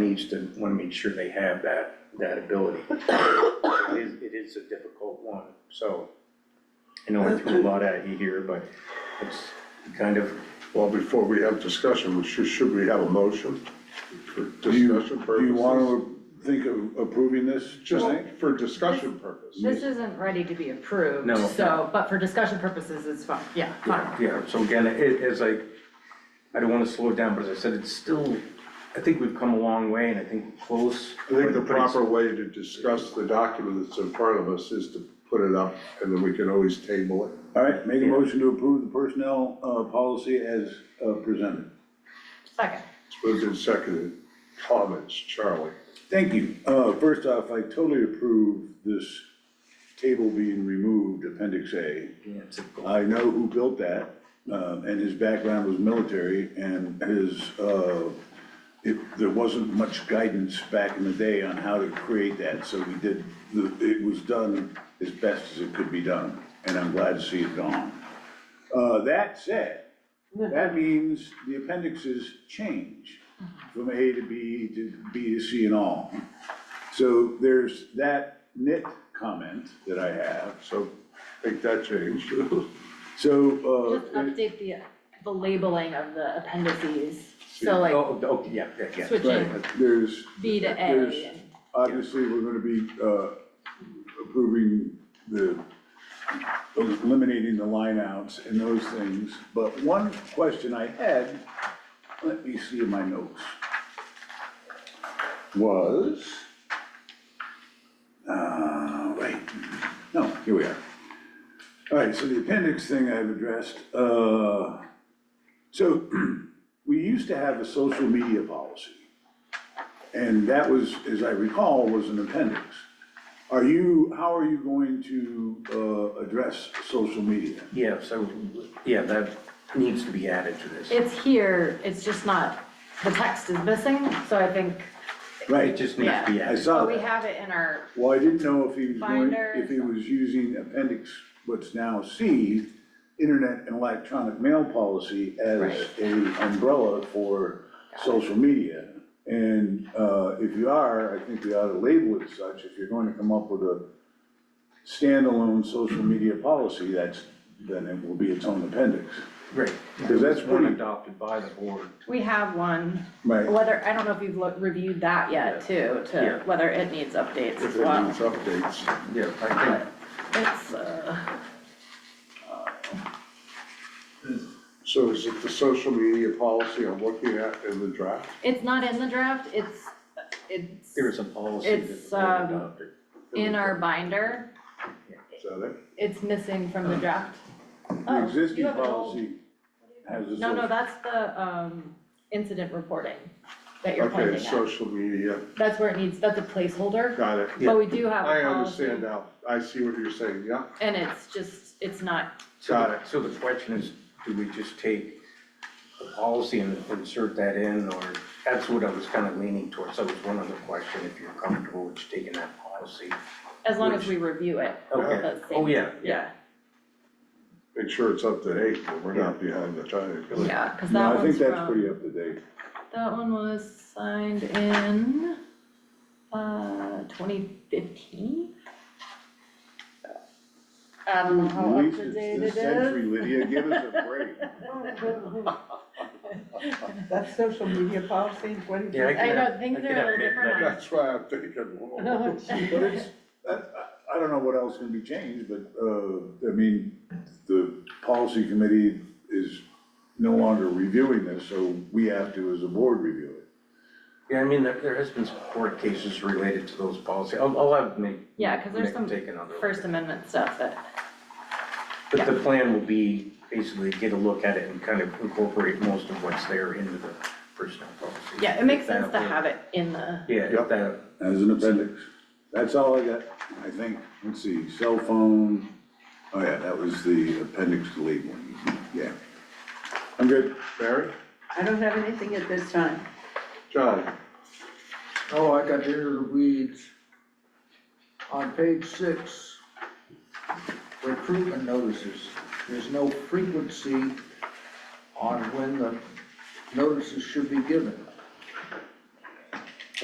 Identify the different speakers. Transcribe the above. Speaker 1: needs to, wanna make sure they have that, that ability. It is, it is a difficult one, so. I know I threw a lot at you here, but it's kind of,
Speaker 2: Well, before we have discussion, we should, should we have a motion for
Speaker 3: Do you,
Speaker 2: discussion purposes?
Speaker 3: do you wanna think of approving this,
Speaker 2: Just
Speaker 3: tonight?
Speaker 2: for discussion purposes.
Speaker 4: This isn't ready to be approved,
Speaker 1: No.
Speaker 4: so, but for discussion purposes, it's fine, yeah, fine.
Speaker 1: yeah, so again, it, as I, I don't wanna slow it down, but as I said, it's still, I think we've come a long way and I think we're close.
Speaker 2: I think the
Speaker 1: but it's-
Speaker 2: proper way to discuss the document that's in front of us is to put it up, and then we can always table it.
Speaker 3: All right, make a
Speaker 1: Yeah.
Speaker 3: motion to approve the personnel, uh, policy as, uh, presented.
Speaker 4: Second,
Speaker 2: It's moved and seconded. Comments, Charlie?
Speaker 3: Thank you. Uh, first off, I totally approve this table being removed, Appendix A.
Speaker 1: Yeah, it's difficult.
Speaker 3: I know who built that, um, and his background was military, and his, uh, it, there wasn't much guidance back in the day on how to create that, so we did, the- it was done as best as it could be done, and I'm glad to see it gone. Uh, that said, that means the appendixes change from A to B to B to C and all. So there's that nit comment that I have,
Speaker 2: So make that change.
Speaker 3: so, uh.
Speaker 4: just update the, the labeling of the appendices, so like
Speaker 1: Oh, okay, yeah, yeah, yeah.
Speaker 4: switching
Speaker 3: Right, there's,
Speaker 4: B to A
Speaker 3: There's-
Speaker 4: and.
Speaker 3: obviously, we're gonna be, uh, approving the, eliminating the lineouts and those things, but one question I had, let me see in my notes, was, uh, wait, no, here we are. All right, so the appendix thing I've addressed, uh, so, we used to have a social media policy. And that was, as I recall, was an appendix. Are you, how are you going to uh, address social media?
Speaker 1: Yeah, so, yeah, that needs to be added to this.
Speaker 4: It's here, it's just not, the text is missing, so I think,
Speaker 1: It
Speaker 3: Right,
Speaker 1: just needs to be
Speaker 4: Yeah.
Speaker 3: I
Speaker 1: added.
Speaker 3: saw
Speaker 4: but we
Speaker 3: that.
Speaker 4: have it in our,
Speaker 3: Well, I didn't know if he was going,
Speaker 4: Binder.
Speaker 3: if he was using appendix, what's now C, internet and electronic mail policy as
Speaker 4: Right.
Speaker 3: a umbrella for social media. And uh, if you are, I think you ought to label it such. If you're going to come up with a standalone social media policy, that's, then it will be its own appendix.
Speaker 1: Great.
Speaker 3: Because that's
Speaker 1: One
Speaker 3: pretty-
Speaker 1: adopted by the board.
Speaker 4: we have one,
Speaker 3: Right,
Speaker 4: whether, I don't know if you've loo- reviewed that yet too, to
Speaker 1: Yeah.
Speaker 4: whether it needs updates
Speaker 2: If
Speaker 4: as
Speaker 2: it
Speaker 4: well.
Speaker 2: needs updates.
Speaker 1: Yeah, I think,
Speaker 4: It's, uh,
Speaker 2: So is it the social media policy I'm looking at in the draft?
Speaker 4: it's not in the draft, it's, it's
Speaker 1: there is a policy that
Speaker 4: It's,
Speaker 1: the board
Speaker 4: um,
Speaker 1: adopted.
Speaker 4: in our binder,
Speaker 2: Is that it?
Speaker 4: it's missing from the draft.
Speaker 3: the
Speaker 4: Oh, you
Speaker 3: existing
Speaker 4: have an old-
Speaker 3: policy has a
Speaker 4: No, no,
Speaker 3: social,
Speaker 4: that's the, um, incident reporting that you're
Speaker 2: Okay,
Speaker 4: pointing at.
Speaker 2: social media,
Speaker 4: That's where it needs, that's a placeholder,
Speaker 2: got it.
Speaker 1: Yeah.
Speaker 4: but we do have
Speaker 2: I
Speaker 4: a policy.
Speaker 2: understand now. I see what you're saying, yeah.
Speaker 4: And it's just, it's not,
Speaker 1: So
Speaker 2: Got
Speaker 1: the-
Speaker 2: it.
Speaker 1: So the question is, do we just take the policy and insert that in, or that's what I was kind of leaning towards. That was one other question, if you're comfortable with taking that policy.
Speaker 4: as long as we review it.
Speaker 1: Okay.
Speaker 4: that's safe.
Speaker 1: Oh, yeah, yeah.
Speaker 4: Yeah,
Speaker 2: Make sure it's up to eight, but we're not behind the time.
Speaker 4: yeah, cause
Speaker 3: no,
Speaker 4: that
Speaker 3: I think
Speaker 4: one's
Speaker 3: that's
Speaker 4: from,
Speaker 3: pretty up to date.
Speaker 4: that one was signed in, uh, twenty fifteen? I don't know how up
Speaker 3: Lisa,
Speaker 4: to
Speaker 3: it's
Speaker 4: date
Speaker 3: this
Speaker 4: it
Speaker 3: century,
Speaker 4: is.
Speaker 3: Lydia, give us a break.
Speaker 5: That's social media policy, what is
Speaker 1: Yeah, I
Speaker 5: it?
Speaker 1: can
Speaker 4: I
Speaker 1: have-
Speaker 4: know, things
Speaker 1: I
Speaker 4: are
Speaker 1: can
Speaker 4: a
Speaker 1: have
Speaker 4: little
Speaker 1: Nick
Speaker 4: different
Speaker 1: make-
Speaker 4: on
Speaker 2: That's why I'm thinking, whoa.
Speaker 3: But it's, I, I- I don't know what else can be changed, but, uh, I mean, the policy committee is no longer reviewing this, so we have to, as a board, review it.
Speaker 1: Yeah, I mean, there, there has been some court cases related to those policies. I'll, I'll have Nick.
Speaker 4: Yeah, 'cause there's
Speaker 1: Nick
Speaker 4: some
Speaker 1: Take another. look
Speaker 4: First
Speaker 1: at it.
Speaker 4: Amendment stuff that,
Speaker 1: But the plan will be basically get a look at it and kind of incorporate most of what's there into the personnel policy.
Speaker 4: yeah, it makes sense to have it in the,
Speaker 1: Yeah, if
Speaker 2: Yep.
Speaker 1: that,
Speaker 3: As an appendix. That's all I got, I think. Let's see, cell phone, oh yeah, that was the appendix labeling, yeah. I'm good.
Speaker 2: Mary?
Speaker 5: I don't have anything at this time.
Speaker 2: John?
Speaker 6: Oh, I got into the weeds. On page six, recruitment notices, there's no frequency on when the notices should be given.